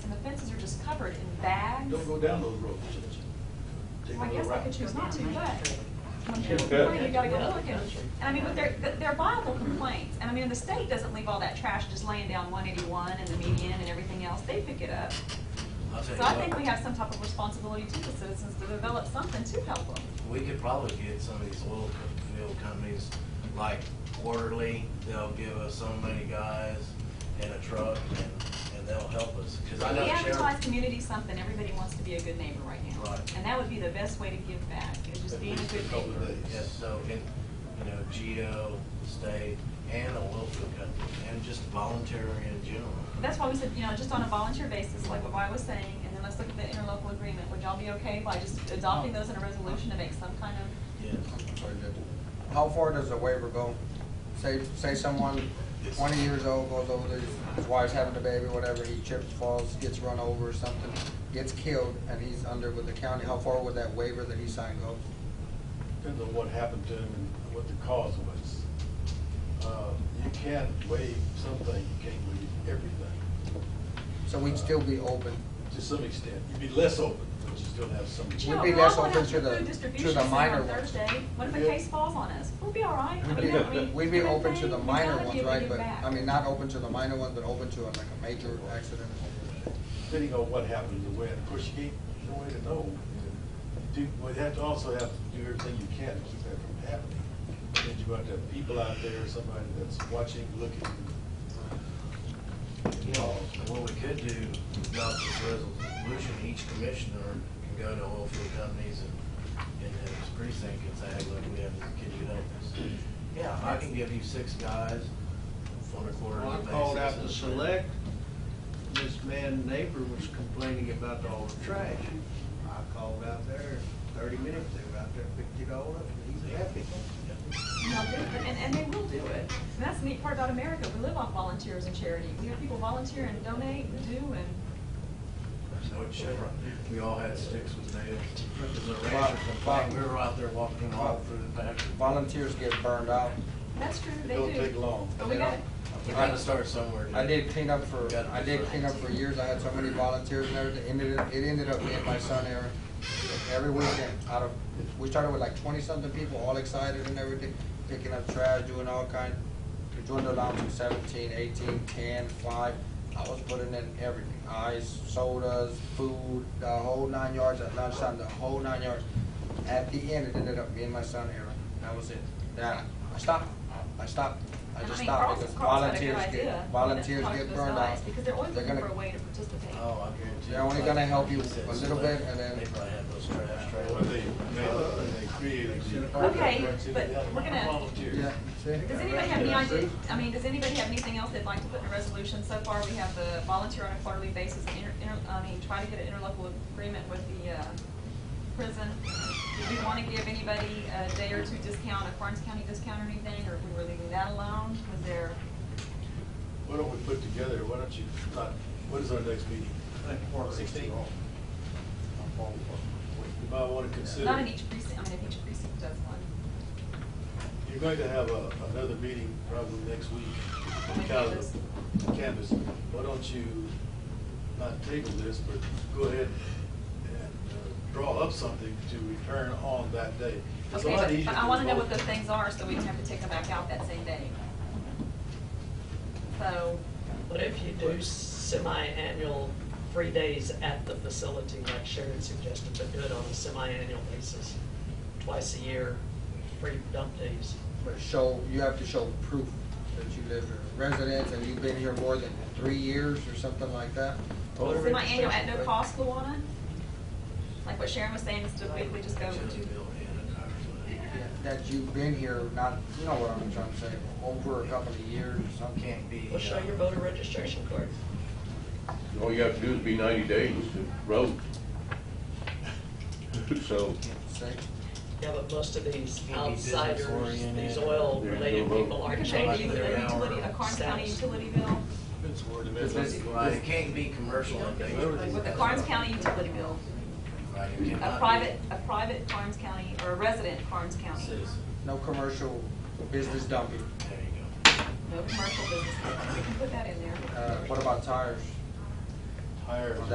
covered in bags. Don't go down those roads. Take Well, I another guess I route. could choose not to, but when Yeah. people complain, you gotta go look and, and I mean, but they're, they're viable complaints. And I mean, the state doesn't leave all that trash just laying down one eighty-one and the median and everything else. They pick it up. I'll tell So I you think what, we have some type of responsibility to the citizens to develop something to help them. We could probably get some of these oil co- field companies, like quarterly, they'll give us so many guys and a truck and, and they'll help us, cause I know We advertise sheriff. community something, everybody wants to be a good neighbor right now. Right. And that would be the best way to give back, is just At being a least good couple neighbor. days. Yes, so, and, you know, Geo, the state, and the oil field company, and just voluntary in general. That's why we said, you know, just on a volunteer basis, like what I was saying, and then let's look at the interlocal agreement. Would y'all be okay by just adopting those in a resolution to make some kind of, Yes. Sorry, Judge. How far does the waiver go? Say, say someone twenty years old goes over there, his wife's having a baby, whatever, he trips, falls, gets run over or something, gets killed, and he's under with the county, how far would that waiver that he signed go? Depends on what happened to him and what the cause was. Uh, You can waive something, you can't waive everything, So we'd still be open. to some extent. You'd be less open, but you still have some. but We'd you know, be we're less all going open out to to the- the to food the distribution center minor on ones. Thursday. What if a Yeah. case falls on us? We'll be all right. I mean, Yeah. I mean, We'd be human open to thing, the we minor gotta be ones, able to right, give but, back. I mean, not open to the minor ones, but open to like a major accident. Depending on what happened, the way, of course, you can't, there's no way to know. You do- We'd have to also have to do everything you can to keep that from happening. Then you got to have people out there, somebody that's watching, looking. You know, what we could do, adopt this resolution, each commissioner can go to oil field companies and, and his precinct and say, hey, look, we have, this. can you help us? Yeah, I can give you six guys on a quarterly Well, I basis. called out to select, this man neighbor was complaining about all the trash. I called out there, thirty minutes, they were out there, picked it all up, and he's happy. No, they- And, and they will do it. And that's the neat part about America. We live off volunteers and charity. We have people volunteer and donate and do and, Which, we all had sticks with nails. As a rancher complained, we were out there walking all through the pasture. Volunteers get burned out. that's true, they It don't do. take long. But we got, We gotta start somewhere. dude. I did clean up for, I did clean up for years, I had so many volunteers and everything, ended, up- it ended up being my son, Aaron. Every weekend, out of, we started with like twenty-something people, all excited and everything, picking up trash, doing all kind. We dwindled down to seventeen, eighteen, ten, five, I was putting in everything, ice, sodas, food, the whole nine yards at lunchtime, the whole nine yards. At the end, it ended up being my son, Aaron, that was it, yeah, I stopped, I stopped, I I just mean, stopped Carl's, because Carl's got a good volunteers idea. get, volunteers Talk to get those burned guys, out. Because they're always They're looking gonna- for a way to participate. Oh, I guarantee. They're only gonna help you Like a little bit and then- They probably had those trash When trailers. they, when they created. the- Okay, but looking at- Volunteers. Yeah, see? Does anybody have any idea, I mean, does anybody have anything else they'd like to put in a resolution? So far, we have the volunteer on a quarterly basis, and inter- inter- I mean, try to get an interlocal agreement with the uh, prison. Did we want to give anybody a day or two discount, a Karnes County discount or anything, or if we were leaving that alone? Was there, Why don't we put together, why don't you, not, what is our next meeting? Sixteen? You might wanna consider. not in each precinct, I mean, if each precinct does one. You're going to have a, another meeting probably next week. On the Canvas. Canvas. Why don't you not table this, but go ahead and uh, draw up something to return on that day. It's a lot Okay, easier but I want to know what vote. those things are, so we don't have to take them back out that same day. So, What if you do semi-annual, three days at the facility, like Sharon suggested, but do it on a semi-annual basis, twice a year, three dump days? But Show, you have to show proof that you live here, residence, and you've been here more than three years or something like that. Well, semi-annual at no cost, Luana? Like what Sharon was saying, instead of we just go Should to have built in a Yeah, car. That you've been here, not, you know what I'm trying to say, over a couple of years or something. Can't be. Well, show uh, your voter registration card. All you have to do is be ninety days to road. So, See? Yeah, but most of these Can't be business outsiders, these oriented. oil-related There's no people Or are could they changing do their a utility, a Karnes County status. utility bill, It's word of It's mouth. busy. Right, it can't be commercial in nature. with a Karnes County utility bill, Right, it cannot a be. private, a private Karnes County, or a resident Karnes County. Citizen. No commercial business dumping. There you go. No commercial business, we can put that in there. Uh, what about tires? Higher.